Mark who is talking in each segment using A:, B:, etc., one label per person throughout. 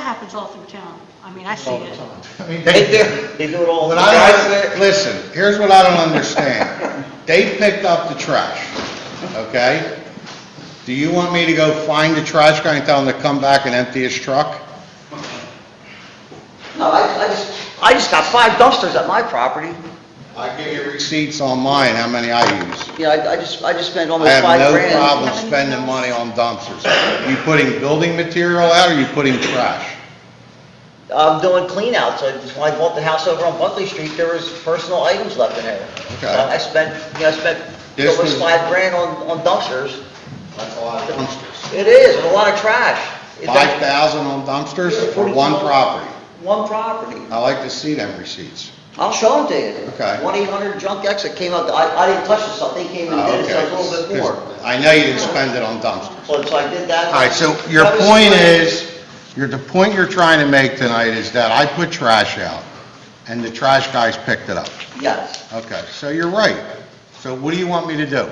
A: happens all through town. I mean, I see
B: all the
A: it.
B: time. I mean,
C: They
B: they-
C: do, they do it all.
D: What
C: the
D: I
C: guys
D: don't,
C: that-
D: listen, here's what I don't understand. They picked up the trash, okay? Do you want me to go find the trash guy and tell him to come back and empty his truck?
C: No, I, I just, I just got five dumpsters at my property.
D: I give you receipts on mine, how many I use.
C: You know, I, I just, I just spent
D: I
C: almost
D: have
C: five
D: no
C: grand.
D: problem spending money on dumpsters. You putting building material out or you putting trash?
C: I'm doing cleanouts, I just, when I bought the house over on Buckley Street, there was personal items left in there.
D: Okay.
C: So I spent, you know, I spent
D: This
C: almost
D: was-
C: five grand on, on dumpsters.
D: That's a lot of dumpsters.
C: It is, and a lot of trash. It's like
D: Five thousand on dumpsters for one property.
C: One property.
D: I like to see them receipts.
C: I'll show them to you.
D: Okay.
C: One eight hundred junk exit came out, I, I didn't touch this stuff, they came and did it, so I was a little bit
D: Okay.
C: more.
D: 'Cause I know you didn't spend it on dumpsters.
C: So, so I did that.
D: All right, so your
C: That was-
D: point is, your, the point you're trying to make tonight is that I put trash out, and the trash guys picked it up.
C: Yes.
D: Okay, so you're right. So what do you want me to do?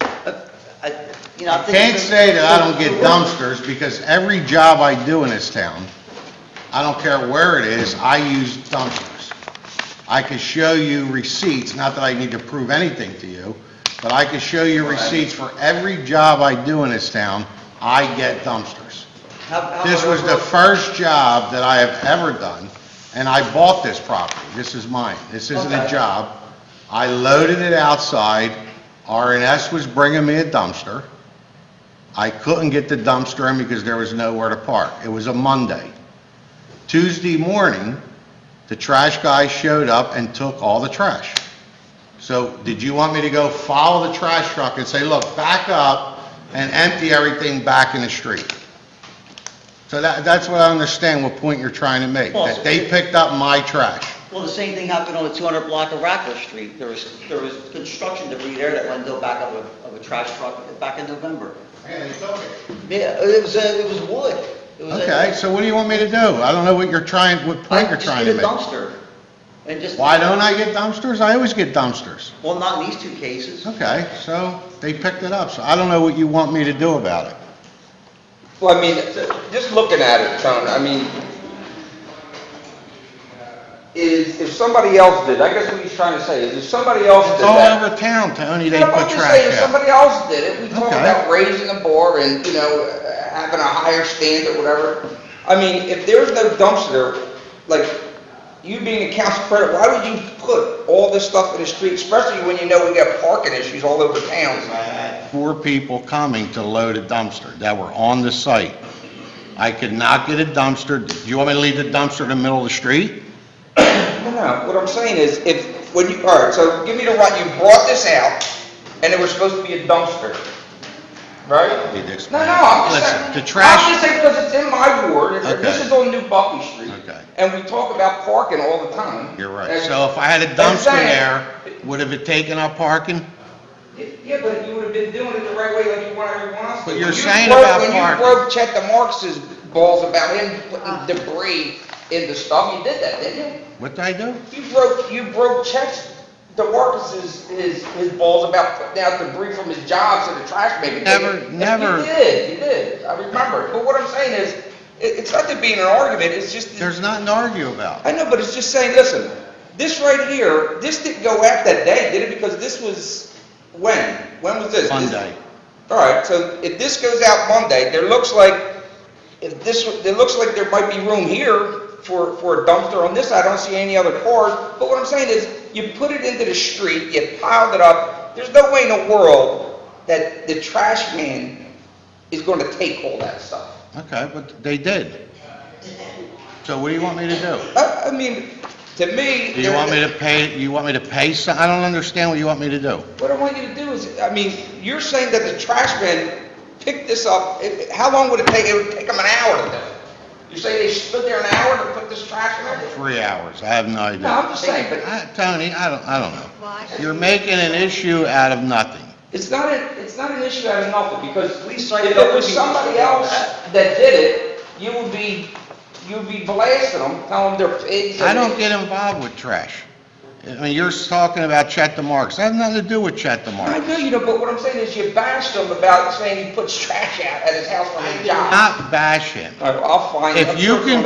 C: I, you know, I think.
D: Can't say that I don't get dumpsters, because every job I do in this town, I don't care where it is, I use dumpsters. I could show you receipts, not that I need to prove anything to you, but I could show you receipts for every job I do in this town, I get dumpsters.
C: How- how
D: This
C: about
D: was the
C: over-
D: first job that I have ever done, and I bought this property. This is mine. This isn't a
C: Okay.
D: job. I loaded it outside. RNS was bringing me a dumpster. I couldn't get the dumpster in because there was nowhere to park. It was a Monday. Tuesday morning, the trash guy showed up and took all the trash. So did you want me to go follow the trash truck and say, look, back up and empty everything back in the street? So that, that's what I understand, what point you're trying to make, that they picked up my trash.
C: Well, the same thing happened on the 200 block of Rackler Street. There was, there was construction debris there that went into the back of a, of a trash truck back in November. Yeah, it was, uh, it was wood. It was a-
D: Okay, so what do you want me to do? I don't know what you're trying, what
C: I
D: point you're
C: just
D: trying to
C: get a
D: make.
C: dumpster and just.
D: Why don't I get dumpsters? I always get dumpsters.
C: Well, not in these two cases.
D: Okay, so they picked it up, so I don't know what you want me to do about it.
E: Well, I mean, just looking at it, Tony, I mean, is, if somebody else did, I guess what he's trying to say is if somebody else
D: It's
E: did
D: all
E: that.
D: over town, Tony, they
E: No, but I'm
D: put
E: just saying,
D: trash
E: If
D: out.
E: somebody else did it, we talk
D: Okay.
E: about raising the bar and, you know, uh, having a higher standard, whatever. I mean, if there's no dumpster, like, you being a council president, why would you put all this stuff in the street, especially when you know we got parking issues all over town?
D: Four people coming to load a dumpster that were on the site. I could not get a dumpster, do you want me to leave the dumpster in the middle of the street?
E: No, no, what I'm saying is, if, when you, all right, so give me the right, you brought this out, and it was supposed to be a dumpster, right?
D: Need to
E: No,
D: explain.
E: no, I'm just
D: Listen,
E: saying.
D: the trash-
E: I'm just saying, because it's in my ward, and this
D: Okay.
E: is on New Buckley Street.
D: Okay.
E: And we talk about parking all the time.
D: You're right,
E: And-
D: so if I had a
E: I'm
D: dumpster
E: saying-
D: there, would have it taken up parking?
E: Yeah, but you would have been doing it the right way like you want everyone else to.
D: But
E: When
D: you're
E: you
D: saying
E: broke-
D: about
E: When you
D: parking.
E: broke Chet DeMarcus's balls about him
D: Ah.
E: putting debris in the stuff, you did that, didn't you?
D: What did I do?
E: You broke, you broke checks, DeMarcus's, his, his balls about putting out debris from his job to the trash maybe.
D: Never,
E: You
D: never.
E: did, you did, I remember, but what I'm saying is, it, it's not to be in an argument, it's just.
D: There's nothing to argue about.
E: I know, but it's just saying, listen, this right here, this didn't go out that day, did it? Because this was, when? When was this? This-
D: Monday.
E: All right, so if this goes out Monday, there looks like, if this, it looks like there might be room here for, for a dumpster on this, I don't see any other cars, but what I'm saying is, you put it into the street, you piled it up, there's no way in the world that the trash man is gonna take all that stuff.
D: Okay, but they did. So what do you want me to do?
E: I, I mean, to me.
D: Do you
E: there-
D: want me to pay, you want me to pay some, I don't understand what you want me to do.
E: What I want you to do is, I mean, you're saying that the trash men picked this up, it- it- how long would it take, it would take them an hour to do it? You say they stood there an hour to put this trash in there?
D: Three hours, I have no idea.
E: No, I'm just saying, but
D: I- Tony, I don't, I don't know.
A: Why?
D: You're making an issue out of nothing.
E: it's not, a- it's not an issue out of nothing, because
C: At least I
E: if
C: know
E: it was
C: people-
E: somebody else that did it, you would be, you would be blasting them, telling them they're pigs. and-
D: I don't get involved with trash. I mean, you're talking about Chet DeMarcus. That has nothing to do with Chet
E: I
D: DeMarcus.
E: know you don't, but what I'm saying is you bashed him about saying he puts trash out at his house on his job.
D: Not bash him.
E: All right, well, I'll find.
D: If
E: I'm
D: you
E: sure
D: can